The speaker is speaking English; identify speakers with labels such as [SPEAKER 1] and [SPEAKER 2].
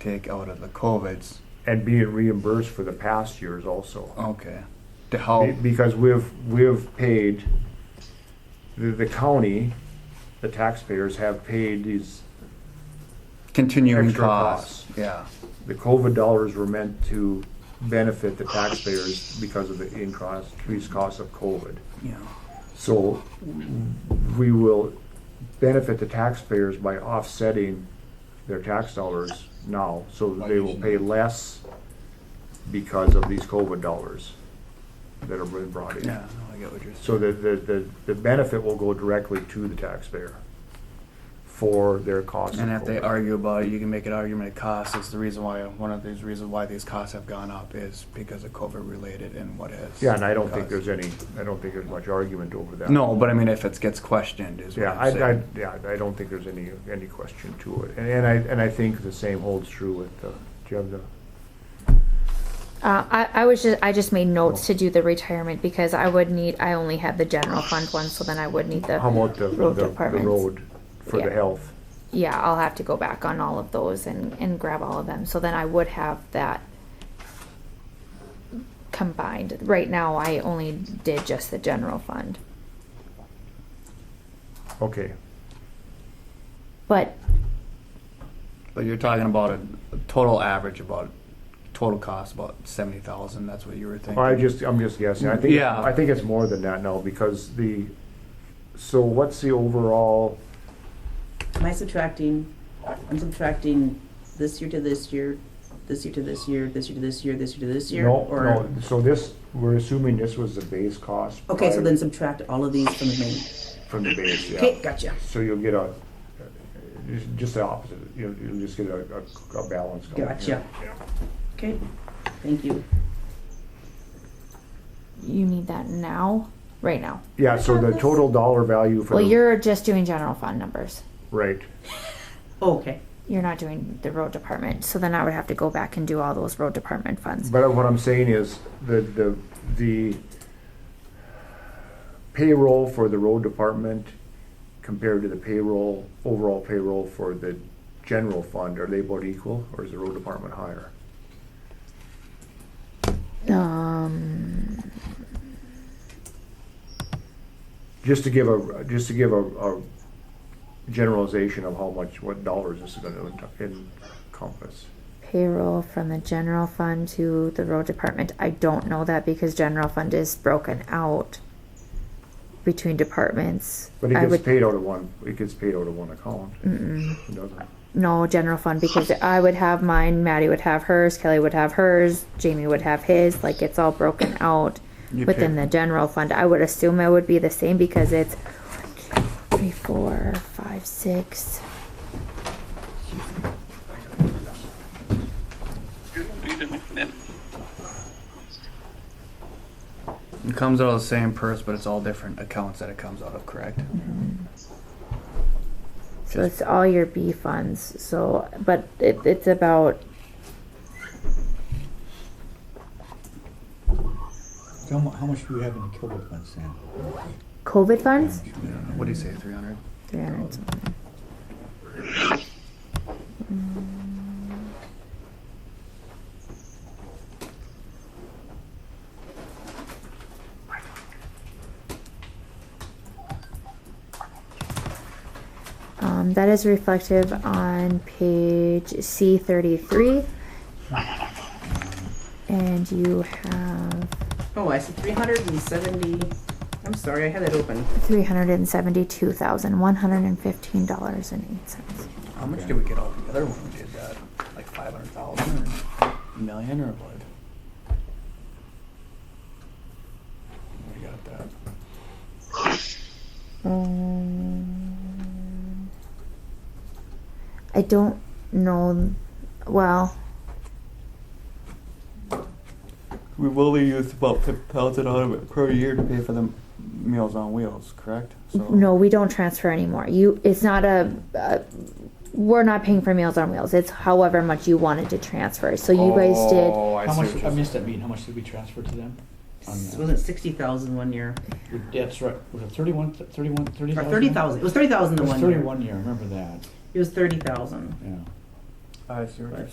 [SPEAKER 1] take out of the COVID's.
[SPEAKER 2] and being reimbursed for the past years also.
[SPEAKER 1] Okay. The how?
[SPEAKER 2] Be- Because we've, we've paid, the, the county, the taxpayers have paid these,
[SPEAKER 1] Continuing
[SPEAKER 2] Extra
[SPEAKER 1] costs. Yeah.
[SPEAKER 2] the COVID dollars were meant to benefit the taxpayers because of the increase, increased cost of COVID.
[SPEAKER 1] Yeah.
[SPEAKER 2] So we will benefit the taxpayers by offsetting their tax dollars now, so that they will pay less because of these COVID dollars that are being brought in.
[SPEAKER 1] Yeah. No, I get what you're saying.
[SPEAKER 2] So the, the, the, the benefit will go directly to the taxpayer for their costs.
[SPEAKER 1] And if they
[SPEAKER 2] are
[SPEAKER 1] argue about it, you can make an argument of costs. It's the reason why, one of these reasons why these costs have gone up is because of COVID related and what has.
[SPEAKER 2] Yeah, and I don't think
[SPEAKER 1] caused.
[SPEAKER 2] there's any, I don't think there's much argument over that.
[SPEAKER 1] No, but I mean, if it gets questioned is what
[SPEAKER 2] Yeah,
[SPEAKER 1] I'm
[SPEAKER 2] I, I,
[SPEAKER 1] saying.
[SPEAKER 2] yeah, I don't think there's any, any question to it. And, and I, and I think the same holds true with, uh, do you have the?
[SPEAKER 3] Uh, I, I was just, I just made notes to do the retirement because I would need, I only have the general fund one, so then I would need the.
[SPEAKER 2] How about the, the
[SPEAKER 3] road
[SPEAKER 2] the
[SPEAKER 3] departments.
[SPEAKER 2] road for the
[SPEAKER 3] Yeah.
[SPEAKER 2] health?
[SPEAKER 3] Yeah, I'll have to go back on all of those and, and grab all of them, so then I would have that combined. Right now, I only did just the general fund.
[SPEAKER 2] Okay,
[SPEAKER 3] But,
[SPEAKER 1] But you're talking about a total average about, total cost about seventy thousand. That's what you were thinking.
[SPEAKER 2] I just, I'm just guessing. I think,
[SPEAKER 1] Yeah.
[SPEAKER 2] I think it's more than that now because the, so what's the overall,
[SPEAKER 4] Am I subtracting, I'm subtracting this year to this year, this year to this year, this year to this year, this year to this year?
[SPEAKER 2] no,
[SPEAKER 4] or-
[SPEAKER 2] no, so this, we're assuming this was the base cost.
[SPEAKER 4] Okay, so
[SPEAKER 2] prior-
[SPEAKER 4] then subtract all of these from the main.
[SPEAKER 2] From the base, yeah.
[SPEAKER 4] Okay, gotcha.
[SPEAKER 2] So you'll get a, just- just the opposite, you'll, you'll just get a, a, a balance going.
[SPEAKER 4] Gotcha. Okay, thank you.
[SPEAKER 3] you need that now, right now.
[SPEAKER 2] Yeah, so the total dollar value for
[SPEAKER 3] Well,
[SPEAKER 2] the,
[SPEAKER 3] you're just doing general fund numbers.
[SPEAKER 2] right,
[SPEAKER 4] Okay,
[SPEAKER 3] You're not doing the road department, so then I would have to go back and do all those road department funds.
[SPEAKER 2] but what I'm saying is, the, the, the payroll for the road department compared to the payroll, overall payroll for the general fund, are they both equal, or is the road department higher?
[SPEAKER 3] Um,
[SPEAKER 2] Just to give a, just to give a, a generalization of how much, what dollars this is gonna encompass.
[SPEAKER 3] payroll from the general fund to the road department. I don't know that because general fund is broken out between departments.
[SPEAKER 2] But it
[SPEAKER 3] I
[SPEAKER 2] gets
[SPEAKER 3] would
[SPEAKER 2] paid out of one, it gets paid out of one account. It doesn't.
[SPEAKER 3] no general fund because I would have mine, Maddie would have hers, Kelly would have hers, Jamie would have his. Like it's all broken out within the general fund. I would assume it would be the same because it's one, two, three, four, five, six.
[SPEAKER 1] It comes out of the same purse, but it's all different accounts that it comes out of, correct?
[SPEAKER 3] So it's all your B funds. So, but it, it's about
[SPEAKER 5] So how mu- how much do we have in the COVID fund, Sam?
[SPEAKER 3] COVID funds.
[SPEAKER 1] What do you say, three hundred?
[SPEAKER 3] Three hundred something. Um, that is reflective on page C thirty-three. And you have
[SPEAKER 4] oh, I said three hundred and seventy, I'm sorry, I had it open.
[SPEAKER 3] three hundred and seventy-two thousand, one hundred and fifteen dollars and eight cents.
[SPEAKER 1] How much did we get all together when we did that? Like five hundred thousand or a million or what? We got that.
[SPEAKER 3] Um, I don't know. Well,
[SPEAKER 1] We've only used about fifty thousand out of it per year to pay for the Meals on Wheels, correct? So
[SPEAKER 3] no, we don't transfer anymore. You, it's not a. a we're not paying for Meals on Wheels. It's however much you wanted to transfer. So you guys did.
[SPEAKER 1] Oh, I
[SPEAKER 5] How
[SPEAKER 1] see
[SPEAKER 5] much,
[SPEAKER 1] what
[SPEAKER 5] I
[SPEAKER 1] you're
[SPEAKER 5] missed that meeting, how much did we transfer to them? On
[SPEAKER 4] It
[SPEAKER 5] that?
[SPEAKER 4] wasn't sixty thousand one year,
[SPEAKER 5] We- That's right, was it thirty-one, thirty-one, thirty
[SPEAKER 4] or
[SPEAKER 5] thousand?
[SPEAKER 4] thirty thousand, it was thirty thousand
[SPEAKER 5] It
[SPEAKER 4] the
[SPEAKER 5] was
[SPEAKER 4] one year.
[SPEAKER 5] thirty-one year, I remember that,
[SPEAKER 4] It was thirty thousand.
[SPEAKER 5] yeah.
[SPEAKER 1] I see what you're